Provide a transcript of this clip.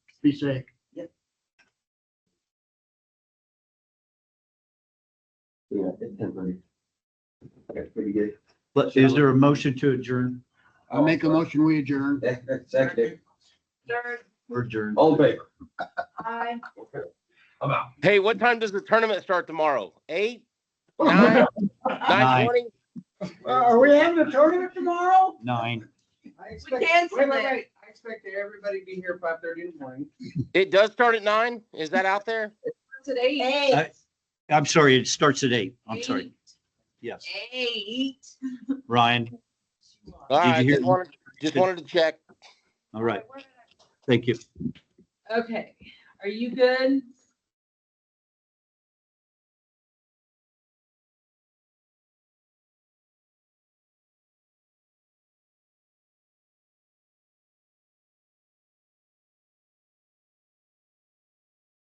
be safe. Yeah, it's temporary. That's pretty good. But is there a motion to adjourn? I make a motion, we adjourn, Second, Third, or adjourn. all in favor. I. I'm out. Hey, what time does the tournament start tomorrow? Eight, Nine. nine, Nine. nine twenty? Are we having a tournament tomorrow? Nine. I We expect, canceled wait, wait, it. wait. I expect everybody to be here five thirty in the morning. It does start at nine? Is that out there? Today. I- I'm sorry, it starts at eight. I'm sorry. Yes. Eight. Ryan, All Did you right, hear- just wanted, just wanted to check. all right. Thank you. Okay, are you good?